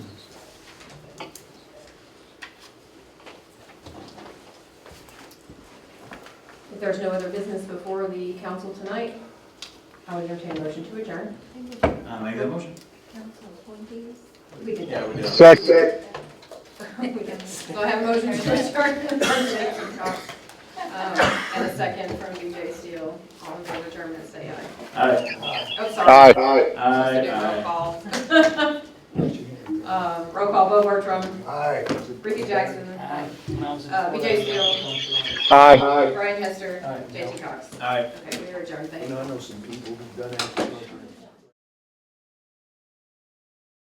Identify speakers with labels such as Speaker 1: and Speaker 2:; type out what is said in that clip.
Speaker 1: there's no other business before the council tonight, I would entertain a motion to adjourn.
Speaker 2: I make that motion.
Speaker 3: Council appointees.
Speaker 1: We did that.
Speaker 2: do.
Speaker 4: Second.
Speaker 1: So I have a motion to adjourn from Jason Cox, um, and a second from BJ Steele. All in favor of adjournment, say aye.
Speaker 2: Aye.
Speaker 1: Oh, sorry.
Speaker 4: Aye. Aye.
Speaker 1: Supposed to do
Speaker 2: Aye,
Speaker 1: Roll call. Um, Roll call, Bo Bartram,
Speaker 5: Aye.
Speaker 1: Ricky Jackson,
Speaker 6: Aye.
Speaker 1: Uh, BJ Steele,
Speaker 4: Aye.
Speaker 1: Brian Hester,
Speaker 6: Aye.
Speaker 1: Jason Cox.
Speaker 2: aye. Aye.
Speaker 1: Okay, we are adjourned, thank you.
Speaker 5: You know, I know some people who've done that.